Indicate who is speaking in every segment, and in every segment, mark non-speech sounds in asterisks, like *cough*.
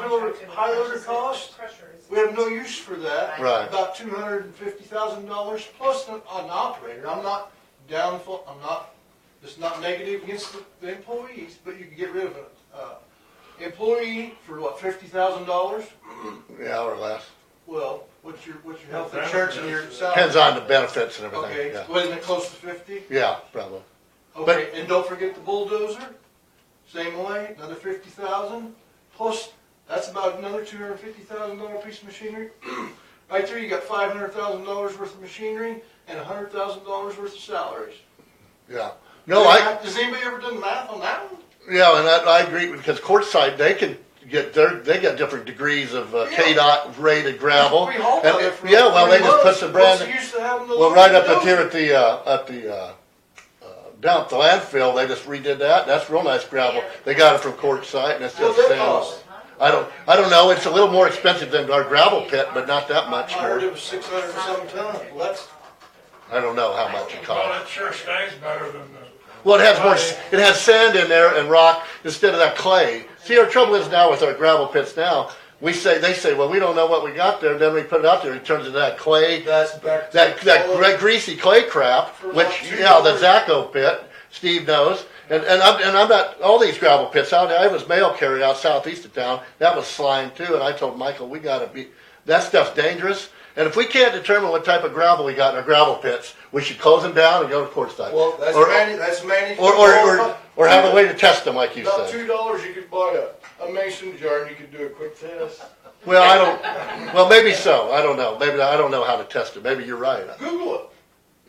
Speaker 1: high order cost, we have no use for that.
Speaker 2: Right.
Speaker 1: About two hundred and fifty thousand dollars plus an, an operator, I'm not down for, I'm not, it's not negative against the, the employees, but you can get rid of a, uh, employee for what, fifty thousand dollars?
Speaker 2: yeah, or less.
Speaker 1: Well, what's your, what's your health
Speaker 3: Well,
Speaker 1: insurance and your
Speaker 3: benefits,
Speaker 1: salary?
Speaker 2: Depends on the benefits and
Speaker 1: Okay,
Speaker 2: everything, yeah.
Speaker 1: wasn't it close to fifty?
Speaker 2: Yeah, probably.
Speaker 1: Okay, and don't forget the bulldozer, same way, another fifty thousand, plus, that's about another two hundred and fifty thousand dollar piece of machinery. *clears throat* Right there, you got five hundred thousand dollars worth of machinery and a hundred thousand dollars worth of salaries.
Speaker 2: Yeah. No, I,
Speaker 1: Has anybody ever done math on that one?
Speaker 2: yeah, and I, I agree, because courtside, they can get their, they got different degrees of uh,
Speaker 1: Yeah.
Speaker 2: KDOT rated gravel.
Speaker 1: We hauled
Speaker 2: And
Speaker 1: on it
Speaker 2: it-
Speaker 1: for.
Speaker 2: Yeah, well, they
Speaker 1: three
Speaker 2: just put
Speaker 1: months.
Speaker 2: some
Speaker 1: What's
Speaker 2: brand.
Speaker 1: the use of having those
Speaker 2: Well, right up
Speaker 1: those?
Speaker 2: at here at the, uh, at the, uh, uh, down at the landfill, they just redid that, that's real nice gravel, they got it from Quartzsite and it's just
Speaker 1: What's it
Speaker 2: sand.
Speaker 1: cost?
Speaker 2: I don't, I don't know, it's a little more expensive than our gravel pit, but not that
Speaker 1: I
Speaker 2: much
Speaker 1: heard
Speaker 2: more,
Speaker 1: it was six hundred and some tons, well, that's,
Speaker 2: I don't know how much it
Speaker 3: Well,
Speaker 2: costs.
Speaker 3: it sure stays better than the.
Speaker 2: Well, it has more, s- it has sand in there and rock instead of that clay, see, our trouble is now with our gravel pits now, we say, they say, well, we don't know what we got there, then we put it out there, it turns into that clay,
Speaker 1: that's back. to
Speaker 2: that, that
Speaker 1: all
Speaker 2: gre- greasy clay crap,
Speaker 1: For about
Speaker 2: which,
Speaker 1: two
Speaker 2: yeah, the
Speaker 1: dollars.
Speaker 2: Zaco pit, Steve knows. And, and I'm, and I'm not, all these gravel pits out there, I was mail carrier out southeast of town, that was slime too, and I told Michael, we gotta be, that stuff's dangerous. And if we can't determine what type of gravel we got in our gravel pits, we should close them down and go to court side.
Speaker 1: Well, that's
Speaker 2: Or-
Speaker 1: many, that's many.
Speaker 2: Or, or, or, or have a way to test them, like you
Speaker 1: About
Speaker 2: said.
Speaker 1: two dollars, you could buy a, a mason jar and you could do a quick test.
Speaker 2: Well, I don't, well, maybe so, I don't know, maybe, I don't know how to test it, maybe you're right.
Speaker 1: Google it.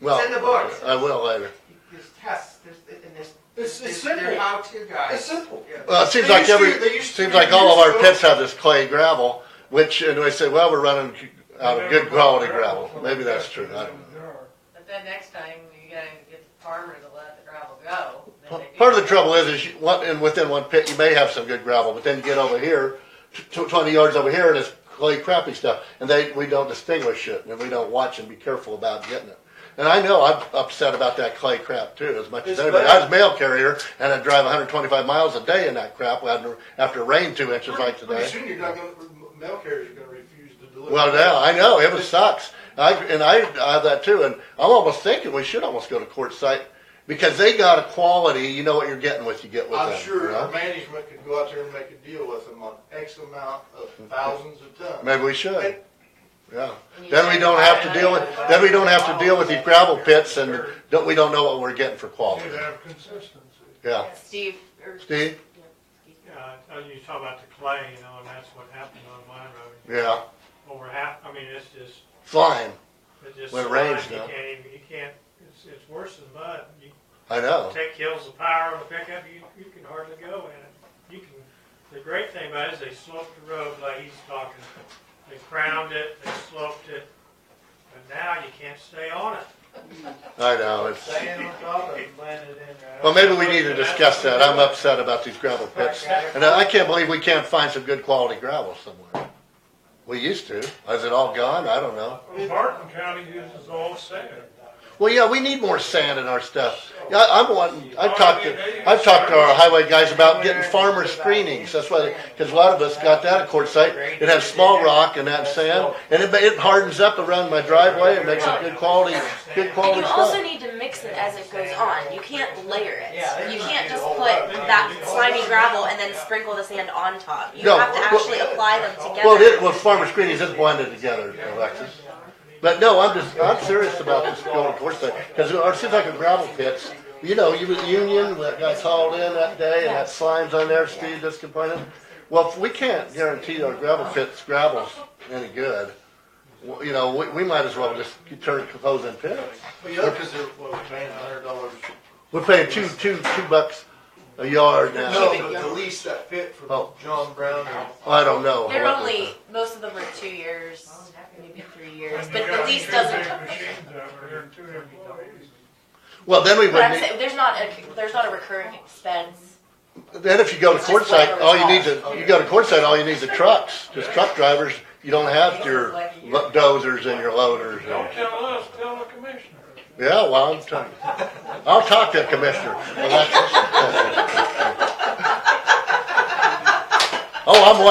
Speaker 2: Well,
Speaker 4: in the books.
Speaker 2: I will later.
Speaker 4: There's tests, there's, and there's.
Speaker 1: It's- it's
Speaker 4: there's- They're
Speaker 1: simple.
Speaker 4: how-to guys.
Speaker 1: It's simple.
Speaker 4: Yeah.
Speaker 2: Well, it seems
Speaker 1: They
Speaker 2: like
Speaker 1: used to-
Speaker 2: every,
Speaker 1: they used to-
Speaker 2: seems like all of
Speaker 1: they
Speaker 2: our
Speaker 1: used to-
Speaker 2: pits have this clay gravel, which, and they say, well, we're running out of good quality gravel. Maybe that's true, I don't know.
Speaker 5: But then next time, you gotta get the farmer to let the gravel go. then
Speaker 2: Pa-
Speaker 5: they do
Speaker 2: Part of the
Speaker 5: that.
Speaker 2: trouble is, is you, one, and within one pit, you may have some good gravel, but then you get over here, tw- tw- twenty yards over here, and it's clay crappy stuff, and they, we don't distinguish it, and we don't watch and be careful about getting it. And I know I'm upset about that clay crap too, as much as
Speaker 1: It's
Speaker 2: anybody.
Speaker 1: bad.
Speaker 2: I was a mail carrier, and I drive hundred twenty-five miles a day in that crap after, after rain two inches like today.
Speaker 1: Pretty soon you're not gonna, mail carriers are gonna refuse to deliver.
Speaker 2: Well, now I know it was sucks. I and I, I have that too, and I'm almost thinking we should almost go to court site because they got a quality. You know what you're getting with you get with
Speaker 1: I'm
Speaker 2: them.
Speaker 1: sure
Speaker 2: you
Speaker 1: our
Speaker 2: know?
Speaker 1: management could go out there and make a deal with them on X amount of thousands of tons.
Speaker 2: Maybe we should. Yeah.
Speaker 5: And you
Speaker 2: Then we
Speaker 5: said
Speaker 2: don't
Speaker 5: buy
Speaker 2: have to
Speaker 5: another
Speaker 2: deal with
Speaker 5: one.
Speaker 2: then we don't have to deal with these gravel pits and don't, we don't know what we're getting for quality.
Speaker 3: You'd have consistency.
Speaker 2: Yeah.
Speaker 5: Steve, or.
Speaker 2: Steve?
Speaker 6: Yeah, and you talk about the clay, you know, and that's what happened on my road.
Speaker 2: Yeah.
Speaker 6: Over half, I mean, it's just,
Speaker 2: Slime.
Speaker 6: it's just.
Speaker 2: When it rains,
Speaker 6: slime.
Speaker 2: no.
Speaker 6: You can't even, you can't, it's, it's worse than mud. You
Speaker 2: I know.
Speaker 6: take hills of power on the pickup, you, you can hardly go in it. You can, the great thing about it is they sloped the road like he's talking. They crowned it, they sloped it, but now you can't stay on it.
Speaker 2: I know. It's
Speaker 6: Staying on top of it, landed in uh, there.
Speaker 2: well, maybe we need to discuss that. I'm upset about these gravel pits, and I I can't believe we can't find some good quality gravel somewhere. We used to. Is it all gone? I don't know.
Speaker 3: Martin County uses all sand.
Speaker 2: Well, yeah, we need more sand in our stuff. Yeah, I- I'm wanting, I've talked to,
Speaker 3: Well,
Speaker 2: I've talked to our highway guys about getting farmer screenings, that's why, because a lot of us got that at quartzsite. It has small rock and that sand, and it, ma- it hardens up around my driveway, it makes it good quality, good quality
Speaker 7: You also
Speaker 2: stuff.
Speaker 7: need to mix it as it goes on. You can't layer it.
Speaker 4: Yeah, they
Speaker 7: You
Speaker 4: might
Speaker 7: can't
Speaker 4: do
Speaker 7: just
Speaker 4: the whole
Speaker 7: put
Speaker 4: lot.
Speaker 7: that slimy gravel and then sprinkle the sand on top. You
Speaker 2: No,
Speaker 7: have to
Speaker 2: well-
Speaker 7: actually apply them together.
Speaker 2: Well, it, well, farmer screenings is blended together, Alexis. But no, I'm just, I'm serious about this going to quartzsite, because it seems like a gravel pits. You know, you was Union, that got hauled in that day, and that slime's on there, Steve just complaining. Well, if we can't guarantee our gravel pits, gravel's any good, well, you know, we, we might as well just turn closing pits.
Speaker 1: Well, yeah, cause they're, well, we're paying a hundred dollars.
Speaker 2: We're paying two, two, two bucks a yard
Speaker 1: No,
Speaker 2: now.
Speaker 1: but the lease that fit from
Speaker 2: Oh.
Speaker 1: John Brown and
Speaker 2: I don't know.
Speaker 7: They're only, most of them are two years, maybe three years,
Speaker 3: And you
Speaker 7: but the
Speaker 3: got
Speaker 7: lease
Speaker 3: E two
Speaker 7: doesn't.
Speaker 3: big Machines over here, two employees.
Speaker 2: Well, then we
Speaker 7: But I'm
Speaker 2: wouldn't, need-
Speaker 7: saying, there's not a, there's not a recurring expense.
Speaker 2: then if you go to
Speaker 7: It's just
Speaker 2: quartzsite,
Speaker 7: whatever
Speaker 2: all you need
Speaker 7: it's
Speaker 2: to, you go to quartzsite, all you need is the trucks, just truck drivers. You don't have your lo- dozers and your loaders and.
Speaker 3: Don't tell us, tell the commissioner.
Speaker 2: Yeah, well, I'm telling you. I'll talk to the commissioner. Well, that's- *laughs* Oh, I'm